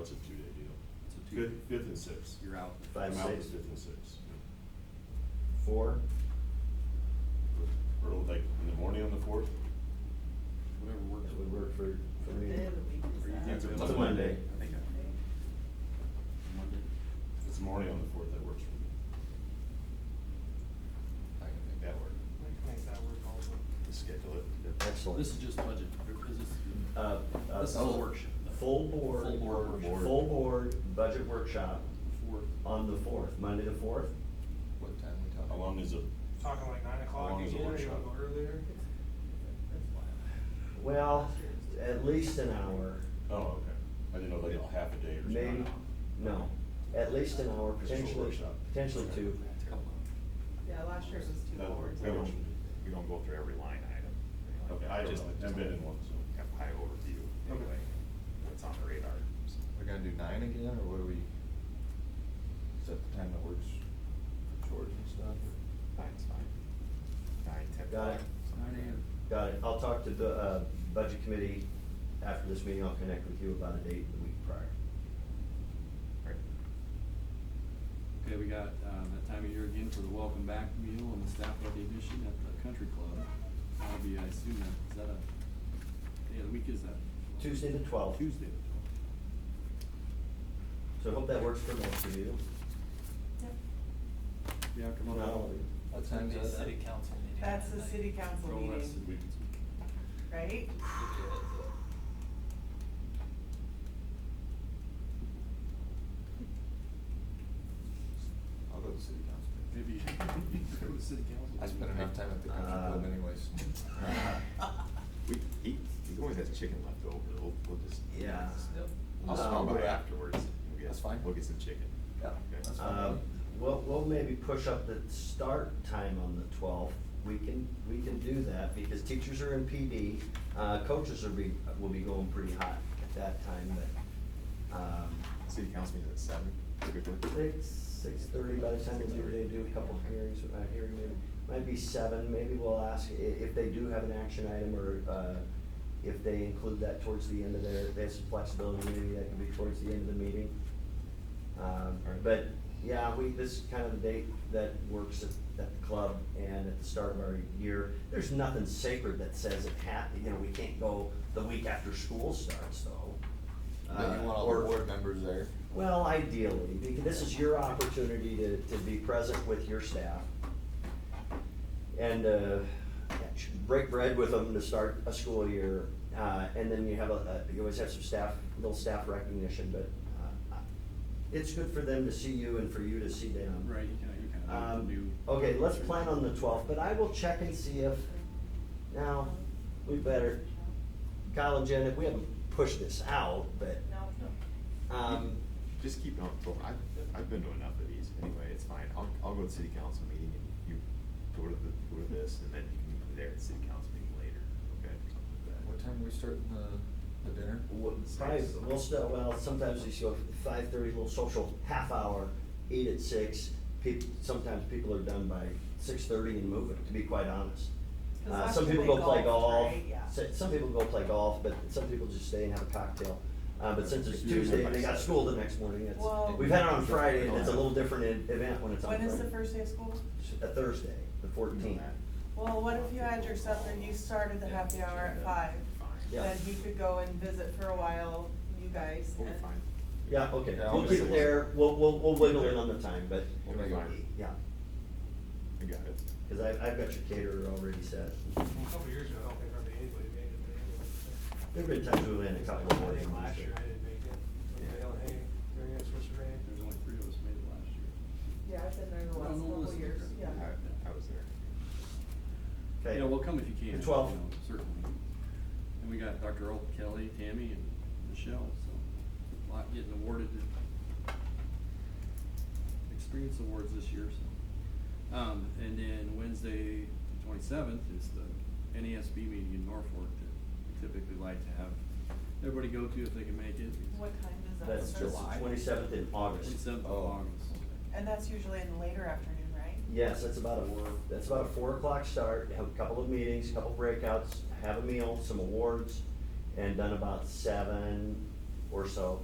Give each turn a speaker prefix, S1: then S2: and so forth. S1: it's a two-day deal.
S2: It's a two-
S1: Fifth, fifth and sixth.
S2: You're out.
S3: Five,
S1: I'm out the
S3: six.
S1: fifth and sixth.
S3: Four,
S1: Or like in the morning on the fourth?
S2: Whatever works.
S3: that would work for, for me.
S4: Day of the week is
S2: Or you
S4: that?
S2: can do it
S3: It's a Monday.
S2: I think I- Monday.
S1: It's the morning on the fourth that works for me. I can make that work.
S5: We can make that work also.
S1: Just Schedule it.
S3: Excellent.
S2: This is just budget, or is this?
S3: Uh, uh,
S2: This is a
S3: oh,
S2: workshop.
S3: Full board.
S2: Full board workshop.
S3: Full board budget workshop
S2: For
S3: on the fourth, Monday the fourth.
S2: what time we
S1: How long is it?
S5: Talking like nine o'clock
S1: long
S5: again,
S1: is the
S5: you wanna
S1: workshop?
S5: go earlier?
S3: Well, at least an hour,
S1: Oh, okay. I didn't know like a half a day or
S3: maybe,
S1: something.
S3: no, at least an hour,
S1: Just for
S3: potentially,
S1: workshop.
S3: potentially two.
S4: Yeah, last year it was two
S1: That
S4: hours.
S1: works. That works.
S6: We don't go through every line item. you know,
S1: Okay, I don't
S6: just
S1: know. I've been in one, so.
S6: Have high overview, anyway, what's on the radar. so.
S7: We're gonna do nine again, or what do we, is that the time that works for George and stuff?
S6: Nine's fine. Nine, ten.
S3: Got it.
S6: something like that.
S3: Got it, I'll talk to the, uh, budget committee after this meeting, I'll connect with you about a date the week prior.
S6: Right.
S2: Okay, we got, uh, that time of year again for the welcome back meal and the staff recognition at the country club. That'll be, I assume, that, is that a, yeah, the week is that?
S3: Tuesday the twelfth,
S2: Tuesday. the 12th.
S3: so I hope that works for most of you.
S2: Yeah, come on
S3: Not
S2: out.
S3: all of you.
S7: What time's that?
S8: City council meeting.
S4: That's the
S8: that
S4: city council
S2: Throw the rest of the
S4: meeting,
S2: week.
S4: right?
S8: night.
S7: I'll go to city council.
S2: Maybe, go to city council.
S7: I spent enough time at the country
S3: Uh,
S7: club anyways. We, he, he always has chicken left over, we'll, we'll just.
S3: Yeah.
S8: Yep.
S7: I'll,
S3: Um,
S7: I'll go afterwards. We'll get-
S6: That's fine.
S7: We'll get some chicken.
S3: Yeah.
S7: Okay.
S3: Um, We'll, we'll maybe push up the start time on the twelfth. We can, we can do that because teachers are in PD. Uh, coaches will be, will be going pretty hot at that time, but, um,
S7: City council meeting at seven, typically.
S3: six, six-thirty by the time they do, they do a couple hearings, uh, hearing, maybe, might be seven, maybe we'll ask i- if they do have an action item or, uh, if they include that towards the end of their, they have some flexibility, maybe that can be towards the end of the meeting. Um,
S7: Alright.
S3: but, yeah, we, this is kind of the date that works at, at the club and at the start of our year. There's nothing sacred that says it ha, you know, we can't go the week after school starts though.
S7: Then
S3: Uh,
S7: you want all the
S3: or-
S7: board members there.
S3: well, ideally, because this is your opportunity to, to be present with your staff. And, uh, break bread with them to start a school year, uh, and then you have a, a- you always have some staff, little staff recognition, but, uh, it's good for them to see you and for you to see them.
S2: Right, you kinda, you kinda need the new.
S3: Um, okay, let's plan on the twelfth, but I will check and see if, now, we better, Kyle and Jen, if we haven't pushed this out, but, um,
S7: Just keep it on, well, I've, I've been to enough of these, anyway, it's fine, I'll, I'll go to city council meeting and you go to the, go to this, and then you can meet me there at city council meeting later, okay, something like that.
S6: What time are we starting the, the dinner?
S3: Well, Probably, we'll still, uh, well, sometimes we go five thirty, little social half hour, eat at six. Peop sometimes people are done by six thirty and moving, to be quite honest.
S4: 'Cause
S3: Uh,
S4: that's
S3: some
S4: when
S3: people
S4: they
S3: go play
S4: golf,
S3: golf,
S4: right? Yeah.
S3: so- some people go play golf, but some people just stay and have a cocktail. Uh, but since it's
S7: You remember
S3: Tuesday and they
S7: by
S3: got
S7: seven.
S3: school the next morning, it's,
S4: Well-
S3: we've had it on Friday and it's a little different e- event when it's on
S4: When
S3: Friday.
S4: is the first day of school?
S3: A Thursday, the fourteenth.
S4: Well, what if you had your supper, you started the happy hour at five?
S7: Fine,
S3: Yeah.
S4: Then he could go and visit for a while, you guys.
S7: we'll be
S4: and-
S7: fine.
S3: Yeah, okay,
S7: Yeah, I'll
S3: we'll keep
S7: make
S3: it
S7: it
S3: there,
S7: work.
S3: we'll, we'll, we'll wiggle in on the time, but,
S7: We'll make it work.
S3: yeah.
S7: I got it.
S3: Cause I, I've got your caterer already set.
S5: A couple years ago, I don't think hardly anybody made it, but anyway.
S3: There've been times we went in a couple of
S5: I
S3: mornings.
S5: think last year I didn't make it,
S7: Yeah.
S5: I was hey, during that switch rain.
S2: There's only three of us made it last year.
S4: Yeah, I've been there the
S2: Well,
S4: last
S2: no,
S4: couple
S2: listen,
S4: years, yeah.
S2: I-
S7: I, I was there.
S3: Okay.
S2: Yeah, well, come if you
S3: The
S2: can.
S3: 12th.
S2: you know, Certainly. And we got Dr. Earl Kelly, Tammy, and Michelle, so a lot getting awarded. Experience awards this year, so. Um, and then Wednesday, the twenty-seventh, is the NESB meeting in Norfolk that we typically like to have everybody go to if they can make it.
S4: What time is that?
S3: That's
S4: Starts-
S7: July.
S3: twenty-seventh in August.
S2: Twenty-seventh of
S7: Oh.
S2: August.
S4: And that's usually in the later afternoon, right?
S3: Yes, that's about a, that's about a four o'clock start, have a couple of meetings, a couple breakouts, have a meal, some awards, and done about seven or so.